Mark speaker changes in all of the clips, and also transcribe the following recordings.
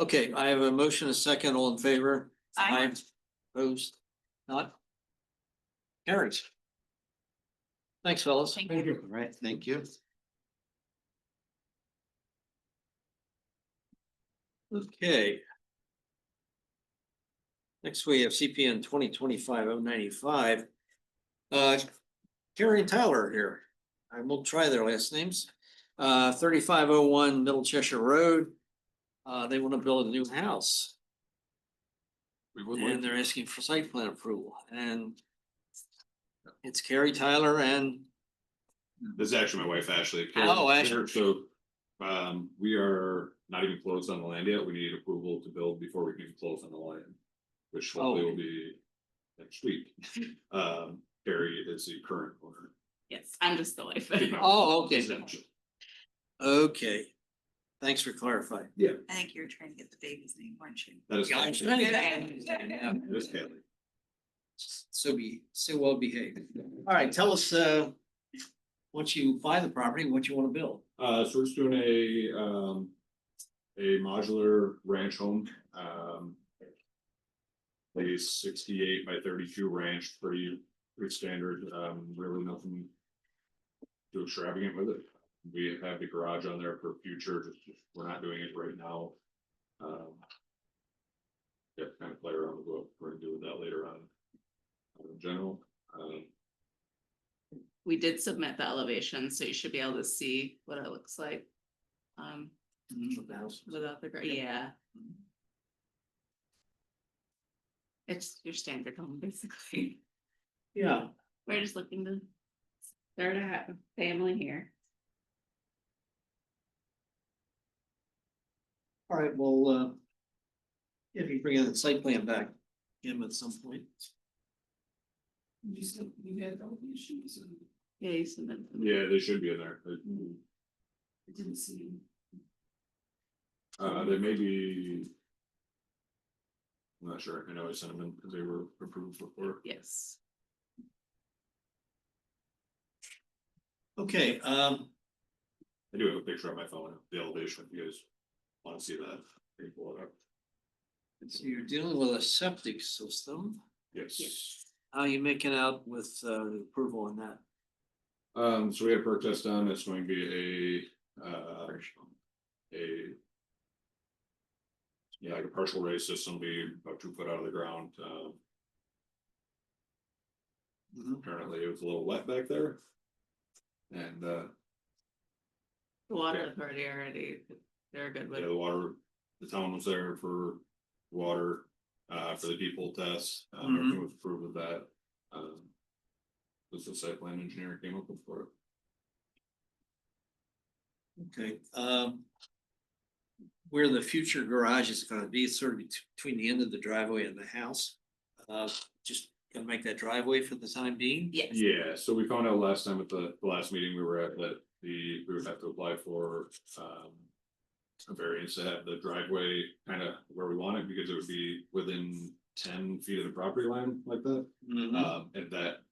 Speaker 1: Okay, I have a motion, a second, all in favor?
Speaker 2: Aye.
Speaker 1: Opposed? Not? Carries. Thanks, fellas.
Speaker 2: Thank you.
Speaker 3: All right, thank you.
Speaker 1: Okay. Next, we have CPN twenty twenty-five oh ninety-five. Uh, Gary and Tyler are here. I will try their last names. Uh, thirty-five oh one Middle Cheshire Road. Uh, they want to build a new house
Speaker 4: We would
Speaker 1: and
Speaker 4: like,
Speaker 1: they're asking for site plan approval and it's Carrie Tyler and
Speaker 4: this is actually my wife, Ashley.
Speaker 1: Oh,
Speaker 4: Karen, So, um, we are not even closed on the land yet. We need approval to build before we can even close on the land. Which hopefully
Speaker 1: Oh.
Speaker 4: will be next week. Um, Carrie is the current owner.
Speaker 2: Yes, I'm just the wife.
Speaker 1: Oh, okay.
Speaker 4: Essentially.
Speaker 1: Okay, thanks for clarifying.
Speaker 5: I think you were trying to get the baby's name, weren't you?
Speaker 4: That is. Ashley. It is
Speaker 1: So
Speaker 4: Haley.
Speaker 1: be, so well behaved. All right, tell us, uh, once you buy the property, what you want to build.
Speaker 4: Uh, so we're just doing a, um, a modular ranch home, um. A sixty-eight by thirty-two ranch, pretty, pretty standard, um, really nothing. Too extravagant with it. We have the garage on there for future, just, we're not doing it right now. Um. Yeah, kind of play around with what we're gonna do with that later on. uh, In general, um,
Speaker 2: We did submit the elevation, so you should be able to see what it looks like. Um, without the, Mm-hmm. gra- yeah. It's your standard home, basically.
Speaker 1: Yeah,
Speaker 2: We're just looking to start a ha- family here.
Speaker 1: all right, well, uh, if you bring in the site plan back, Jim, at some point.
Speaker 2: Yeah, you submitted. them.
Speaker 4: yeah, they should be in there. They-
Speaker 2: I didn't see.
Speaker 4: Uh, there may be. I'm not sure, I know I sent them in because they were approved before.
Speaker 2: Yes.
Speaker 1: Okay, um,
Speaker 4: I do have a picture on my phone, of the elevation, if you guys want to see that, Can you pull it up.
Speaker 1: so you're dealing with a septic system.
Speaker 4: Yes.
Speaker 1: How are you making out with, uh, the approval on that?
Speaker 4: Um, so we have perk test done, it's going to be a, uh, a. Yeah, like a partial raise system, be about two foot out of the ground, um,
Speaker 1: Mhm.
Speaker 4: apparently it was a little wet back there. And, uh,
Speaker 2: The water
Speaker 4: Yeah.
Speaker 2: authority already, they're good with
Speaker 4: Yeah, the water, the town was there for water, uh, for the people test, um, everything was approved of that. Um, Was the site plan engineer came up with for it.
Speaker 1: Okay, um. Where the future garage is gonna be, it's sort of bet- between the end of the driveway and the house. Uh, just gonna make that driveway for the time being.
Speaker 2: Yes.
Speaker 4: Yeah, so we found out last time at the, the last meeting we were at, that the, we would have to apply for, um. A variance to have the driveway kind of where we want it, because it would be within ten feet of the property line like that. Um, and that.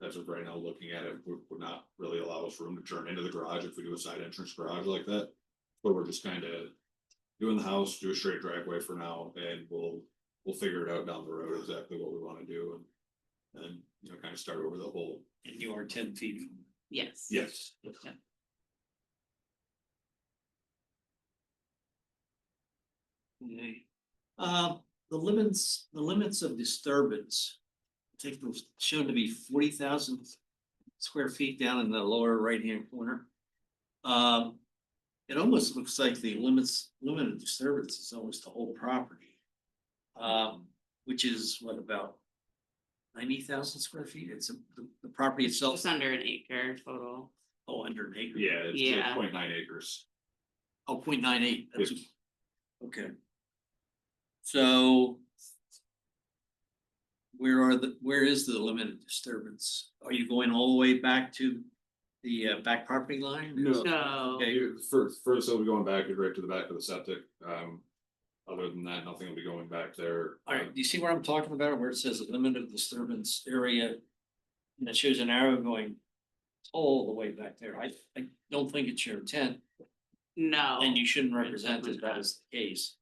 Speaker 4: That's what right now, looking at it, would, would not really allow us room to turn into the garage if we do a side entrance garage like that. But we're just kind of doing the house, do a straight driveway for now, and we'll, we'll figure it out down the road exactly what we want to do and. And, you know, kind of start over the whole,
Speaker 1: And you are ten feet from.
Speaker 2: Yes.
Speaker 4: yes,
Speaker 1: Okay. Uh, the limits, the limits of disturbance. I think was shown to be forty thousand square feet down in the lower right-hand corner. Um, it almost looks like the limits, limit of disturbance is almost the whole property. Um, which is what about ninety thousand square feet? It's a- the, the property itself,
Speaker 2: Just under an acre total.
Speaker 1: oh, under an acre.
Speaker 4: yeah, it's- it's
Speaker 2: Yeah.
Speaker 4: point nine acres.
Speaker 1: Oh, point nine eight, that's, okay. So. Where are the, where is the limited disturbance? Are you going all the way back to the uh, back property line?
Speaker 4: No.
Speaker 2: So,
Speaker 1: Okay.
Speaker 4: You- First, first it'll be going back, right to the back of the septic, um, other than that, nothing will be going back there. Um,
Speaker 1: All right, do you see what I'm talking about, where it says limited disturbance area? And it shows an arrow going all the way back there, I, I don't think it's your intent.
Speaker 2: No.
Speaker 1: And you shouldn't represent that that is the case.